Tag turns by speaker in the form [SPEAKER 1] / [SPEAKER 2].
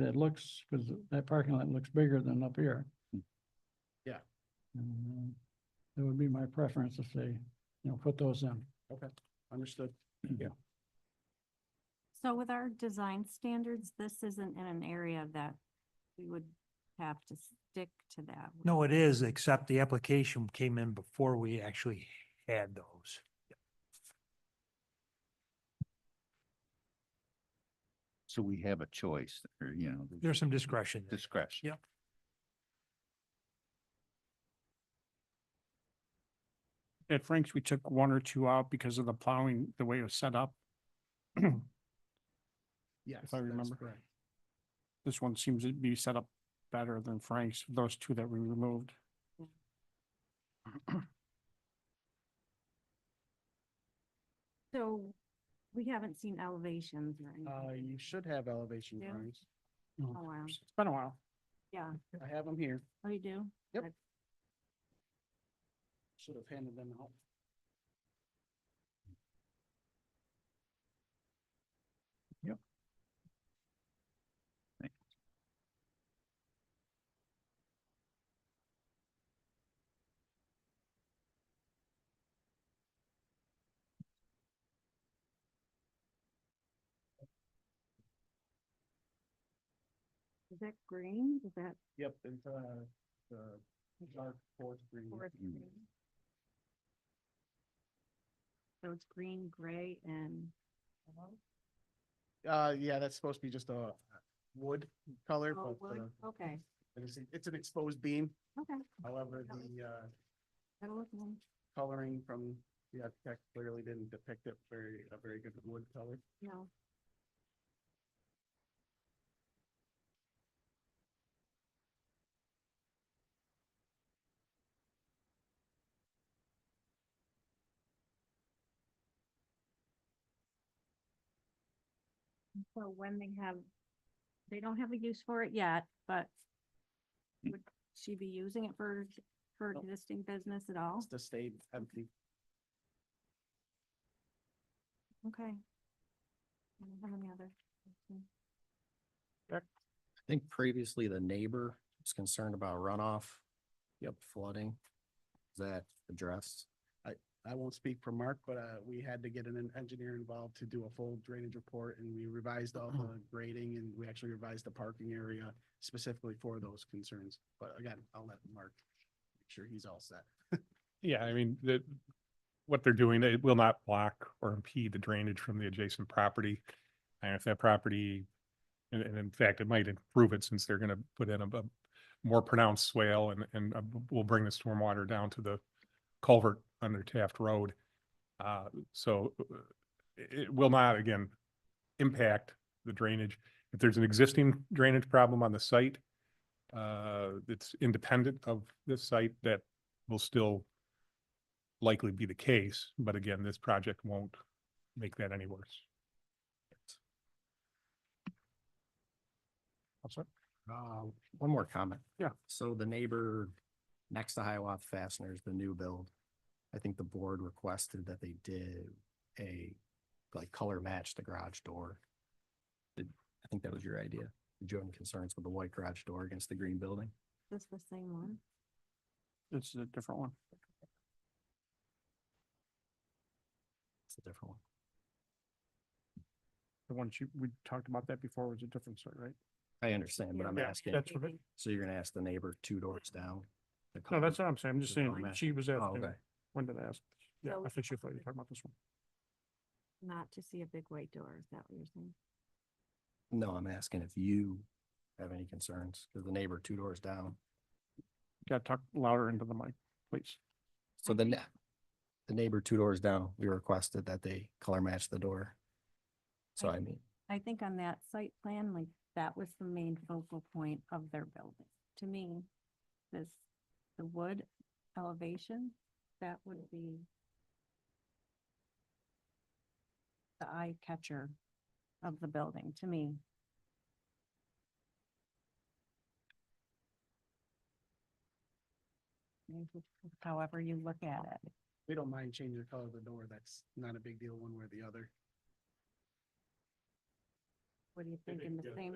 [SPEAKER 1] It looks, because that parking lot looks bigger than up here.
[SPEAKER 2] Hmm. Yeah.
[SPEAKER 1] And, uh, That would be my preference if they, you know, put those in.
[SPEAKER 2] Understood.
[SPEAKER 3] So with our design standards, this isn't in an area that we would have to stick to that. would
[SPEAKER 4] No,
[SPEAKER 3] we?
[SPEAKER 4] it is, except the application came in before we actually had those.
[SPEAKER 5] So we have a choice, or, you know, the
[SPEAKER 4] There's some discretion. there.
[SPEAKER 5] discretion.
[SPEAKER 4] Yep.
[SPEAKER 2] At Frank's, we took one or two out because of the plowing, the way it was set up. If
[SPEAKER 6] Yes.
[SPEAKER 2] I
[SPEAKER 6] that's
[SPEAKER 2] remember.
[SPEAKER 6] correct.
[SPEAKER 2] This one seems to be set up better than Frank's, those two that we removed.
[SPEAKER 3] So we haven't seen elevations or
[SPEAKER 6] Uh,
[SPEAKER 3] anything.
[SPEAKER 6] you should have elevation
[SPEAKER 3] Yeah.
[SPEAKER 6] drawings.
[SPEAKER 3] Oh, wow.
[SPEAKER 2] It's been a while.
[SPEAKER 3] Yeah,
[SPEAKER 6] I have them here.
[SPEAKER 3] oh, you do?
[SPEAKER 6] Should have handed them out.
[SPEAKER 3] Is that green? Is that
[SPEAKER 6] Yep, it's, uh, the dark forest green.
[SPEAKER 3] forest
[SPEAKER 5] Mm.
[SPEAKER 3] green? So it's green, gray, and
[SPEAKER 6] Uh, yeah, that's supposed to be just a wood color,
[SPEAKER 3] oh,
[SPEAKER 6] but,
[SPEAKER 3] wood?
[SPEAKER 6] uh,
[SPEAKER 3] Okay,
[SPEAKER 6] it is- it's an exposed beam.
[SPEAKER 3] okay.
[SPEAKER 6] However,
[SPEAKER 3] That was-
[SPEAKER 6] the, uh,
[SPEAKER 3] That'll look nice.
[SPEAKER 6] coloring from the architect clearly didn't depict it very, a very good wood color.
[SPEAKER 3] No. And So when they have, they don't have a use for it yet, but
[SPEAKER 5] Mm.
[SPEAKER 3] would she be using it for, for
[SPEAKER 6] Nope.
[SPEAKER 3] existing business at all?
[SPEAKER 6] It's to stay empty.
[SPEAKER 3] Okay. I don't have any other. questions.
[SPEAKER 7] I think previously the neighbor was concerned about runoff. Yep, flooding. Is that addressed?
[SPEAKER 6] I won't speak for Mark, but, uh, we had to get an engineer involved to do a full drainage report and we revised all the grading and we actually revised the parking area specifically for those concerns. But again, I'll let Mark make sure he's all set.
[SPEAKER 8] Yeah, I mean, the, what they're doing, it will not block or impede the drainage from the adjacent property. And if that property, and, and in fact, it might improve it since they're gonna put in a, bu- more pronounced swale and, and uh, b- will bring the stormwater down to the culvert under Taft Road. Uh, so uh, it, it will not, again, impact the drainage. If there's an existing drainage problem on the site, uh, it's independent of this site that will still likely be the case, but again, this project won't make that any worse.
[SPEAKER 7] Uh, one more comment.
[SPEAKER 2] Yeah.
[SPEAKER 7] So the neighbor next to Hiawatha Fasteners, the new build, I think the board requested that they did a, like, color match the garage door. Did, I think that was your idea. Did you have any concerns with the white garage door against the green building?
[SPEAKER 3] This the same one?
[SPEAKER 2] This is a different one.
[SPEAKER 7] It's a different one.
[SPEAKER 2] The one you, we talked about that before was a different site, right?
[SPEAKER 7] I understand, but I'm
[SPEAKER 2] Yeah,
[SPEAKER 7] asking,
[SPEAKER 2] that's right.
[SPEAKER 7] so you're gonna ask the neighbor two doors down? the
[SPEAKER 2] No,
[SPEAKER 7] color-
[SPEAKER 2] that's what I'm saying. I'm just
[SPEAKER 7] Just
[SPEAKER 2] saying,
[SPEAKER 7] color match.
[SPEAKER 2] she was
[SPEAKER 7] Oh,
[SPEAKER 2] asking,
[SPEAKER 7] okay.
[SPEAKER 2] when did I ask? Yeah,
[SPEAKER 3] So-
[SPEAKER 2] I think she thought you were talking about this one.
[SPEAKER 3] Not to see a big white door, is that what you're saying?
[SPEAKER 7] No, I'm asking if you have any concerns, because the neighbor two doors down.
[SPEAKER 2] Got to talk louder into the mic, please.
[SPEAKER 7] So the, ne- the neighbor two doors down, we requested that they color match the door. So I mean,
[SPEAKER 3] I think on that site plan, like, that was the main focal point of their building. To me, this, the wood elevation, that would be the eye catcher of the building, to me. However you look at it.
[SPEAKER 6] We don't mind changing the color of the door. That's not a big deal one way or the other.
[SPEAKER 3] What do you think in the same?